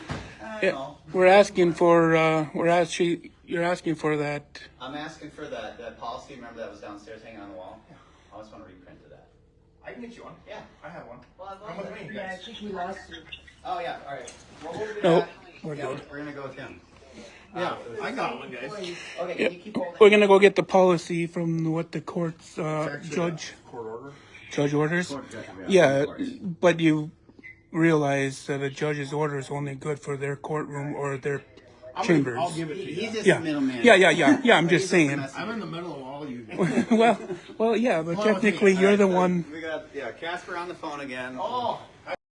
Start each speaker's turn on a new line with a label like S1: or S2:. S1: Yeah,
S2: know.
S1: We're asking for, uh, we're actually, you're asking for that.
S2: I'm asking for that, that policy, remember that was downstairs hanging on the wall? I just wanna reprint of that.
S3: I can get you one.
S2: Yeah.
S3: I have one.
S2: Well, I'd love
S3: Come with
S2: that.
S3: me, you
S4: Yeah, I
S3: guys.
S4: think we lost you.
S2: Oh, yeah, alright. Well, we'll do
S1: No,
S2: that.
S1: we're
S2: Yeah,
S1: good.
S2: We're gonna go with him.
S3: Yeah, I got one, guys.
S4: Please.
S2: Okay,
S1: Yeah,
S2: can you keep holding?
S1: We're gonna go get the policy from what the court's, uh, judge,
S3: Court order.
S1: judge orders. Yeah, but you realize that a judge's order is only good for their courtroom or their
S3: I'm gonna-
S1: chambers.
S3: I'll give it to
S2: He's
S3: you.
S2: just
S1: Yeah.
S2: a middleman.
S1: Yeah, yeah, yeah, yeah, I'm
S2: He's
S1: just
S2: a
S1: saying.
S2: messenger.
S3: I'm in the middle of all you.
S1: Well, well, yeah, but
S3: Come on with me.
S1: technically you're the
S2: Alright, so
S1: one,
S2: We got, yeah, Casper on the phone again.
S3: oh,